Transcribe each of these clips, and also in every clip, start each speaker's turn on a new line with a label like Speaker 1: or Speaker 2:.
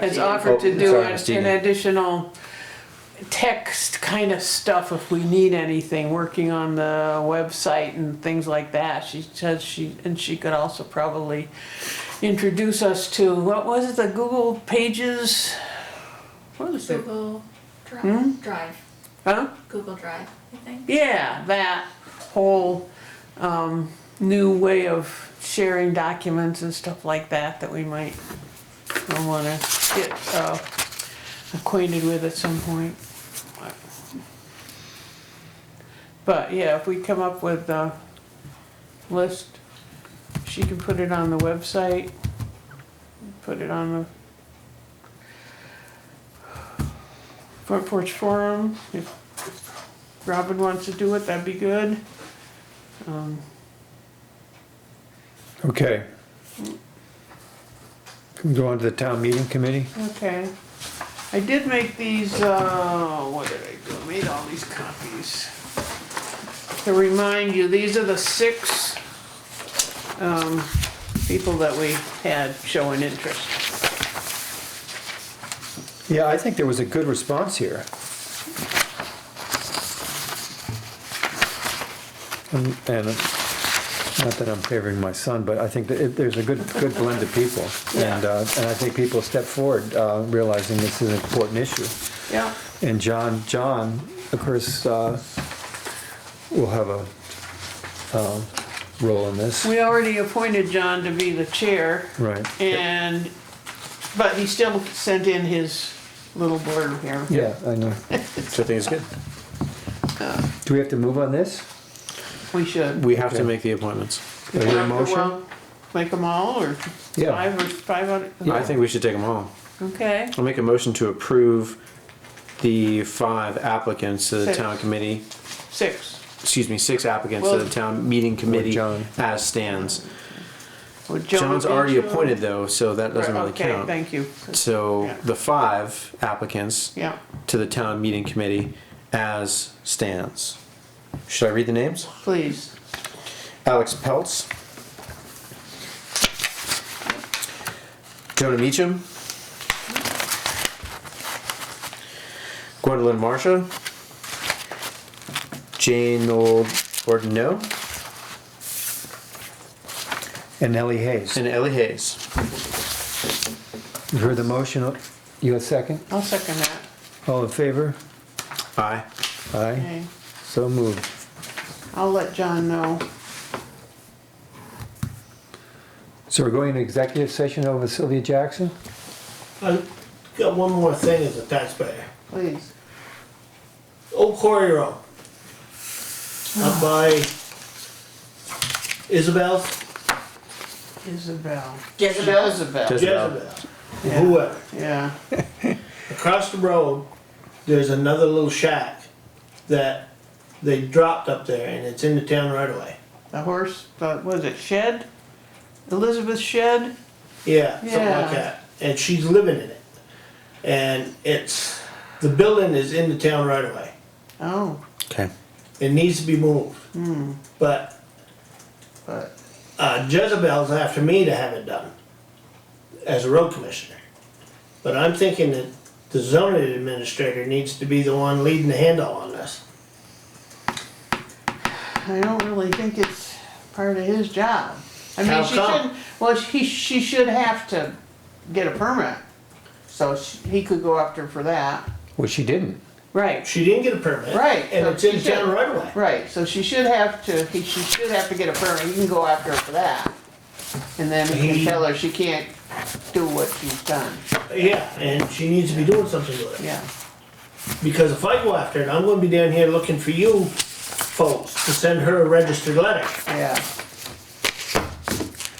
Speaker 1: has offered to do
Speaker 2: Oh, Sorry,
Speaker 1: an
Speaker 2: Stephen.
Speaker 1: an additional text kind of stuff if we need anything, working on the website and things like that. She says she, and she could also probably introduce us to, what was it, the Google Pages? What was it?
Speaker 3: Google Drive. Drive.
Speaker 1: Huh?
Speaker 3: Google Drive, I think.
Speaker 1: Yeah, that whole um, new way of sharing documents and stuff like that that we might want to get uh, acquainted with at some point. But yeah, if we come up with a list, she can put it on the website, put it on the front porch forum. If Robin wants to do it, that'd be good. Um,
Speaker 2: Okay. Can we go on to the town meeting committee?
Speaker 1: okay. I did make these, uh, what did I do? I Made all these copies. To remind you, these are the six, um, people that we had showing interest.
Speaker 2: Yeah, I think there was a good response here. And, and not that I'm favoring my son, but I think that it- there's a good, good blend of people. And, uh, and I think people step forward, uh, realizing this is an important issue.
Speaker 1: Yeah,
Speaker 2: And John, John, of course, uh, will have a, um, role in this.
Speaker 1: we already appointed John to be the chair
Speaker 2: Right.
Speaker 1: and, but he still sent in his little blurb here.
Speaker 2: Yeah, I know.
Speaker 4: Which I think is good.
Speaker 2: Do we have to move on this?
Speaker 1: We should.
Speaker 4: We have to
Speaker 2: Okay.
Speaker 4: make the appointments.
Speaker 2: Is there a
Speaker 1: Well,
Speaker 2: motion?
Speaker 1: Make them all or
Speaker 2: Yeah.
Speaker 1: five or five hundred?
Speaker 4: I think we should take them all.
Speaker 1: Okay.
Speaker 4: I'll make a motion to approve the five applicants to the
Speaker 1: Six.
Speaker 4: town committee,
Speaker 1: Six,
Speaker 4: excuse me, six applicants to
Speaker 1: Well-
Speaker 4: the town meeting committee
Speaker 2: John.
Speaker 4: as stands.
Speaker 1: Would John
Speaker 4: John's
Speaker 1: be
Speaker 4: already
Speaker 1: two?
Speaker 4: appointed though, so that doesn't really
Speaker 1: Okay,
Speaker 4: count.
Speaker 1: thank you.
Speaker 4: So
Speaker 1: Yeah.
Speaker 4: the five applicants
Speaker 1: Yeah,
Speaker 4: to the town meeting committee as stands. Should I read the names?
Speaker 1: please.
Speaker 4: Alex Peltz. Jonah Meacham. Gwendolyn Marsha. Jane Old Ordino.
Speaker 2: And Ellie Hayes.
Speaker 4: And Ellie Hayes.
Speaker 2: You heard the motion. You a second?
Speaker 1: I'll second that.
Speaker 2: All in favor?
Speaker 4: Aye.
Speaker 2: Aye.
Speaker 1: Okay.
Speaker 2: So moved.
Speaker 1: I'll let John know.
Speaker 2: So we're going to executive session over Sylvia Jackson?
Speaker 5: I got one more thing as a taxpayer. Oh,
Speaker 1: Please.
Speaker 5: Old Quarry Road.
Speaker 1: Ah.
Speaker 5: Up by Isabel,
Speaker 1: Isabel. Isabel.
Speaker 5: Jezebel?
Speaker 4: Jez- Isabel.
Speaker 5: Jezebel, whoever.
Speaker 1: Yeah,
Speaker 5: Across the road, there's another little shack that they dropped up there and it's in the town right away.
Speaker 1: the horse, the, was it Shed? Elizabeth Shed?
Speaker 5: Yeah, something
Speaker 1: Yeah.
Speaker 5: like that. And she's living in it. And it's, the building is in the town right away.
Speaker 1: Oh,
Speaker 4: Okay.
Speaker 5: It needs to be moved.
Speaker 1: hmm,
Speaker 5: But
Speaker 1: but,
Speaker 5: Uh, Jezebel's after me to have it done as a road commissioner. But I'm thinking that the zoning administrator needs to be the one leading the handle on this.
Speaker 1: I don't really think it's part of his job. I mean,
Speaker 5: How
Speaker 1: she
Speaker 5: come?
Speaker 1: shouldn't, well, he, she should have to get a permit. So she- he could go after for that.
Speaker 2: Well, she didn't.
Speaker 1: Right.
Speaker 5: She didn't get a permit.
Speaker 1: Right,
Speaker 5: And
Speaker 1: so
Speaker 5: it's in
Speaker 1: she
Speaker 5: town
Speaker 1: should.
Speaker 5: right away.
Speaker 1: Right, so she should have to, he, she should have to get a permit, you can go after her for that. And then he can
Speaker 5: He-
Speaker 1: tell her she can't do what she's done,
Speaker 5: Yeah, and she needs to be doing something with it.
Speaker 1: yeah.
Speaker 5: Because if I go after it, I'm gonna be down here looking for you folks to send her a registered letter.
Speaker 1: Yeah,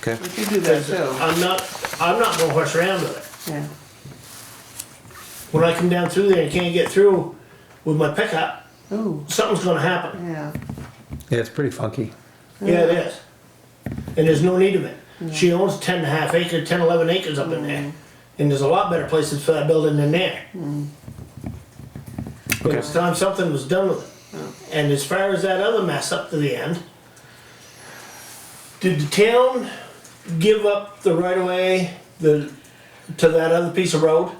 Speaker 4: Okay.
Speaker 1: we could do that
Speaker 5: Because
Speaker 1: too,
Speaker 5: I'm not, I'm not gonna horse around with it.
Speaker 1: yeah.
Speaker 5: When I come down through there and can't get through with my pickup,
Speaker 1: Ooh,
Speaker 5: something's gonna happen.
Speaker 1: yeah,
Speaker 2: Yeah, it's pretty funky.
Speaker 5: Yeah, it is. And there's no need of it. She owns ten and a half acre, ten, eleven acres up in there. And there's a lot better places for that building than there. And it's time something was done with it. And as far as that other mess up to the end, did the town give up the right of way, the to that other piece of road?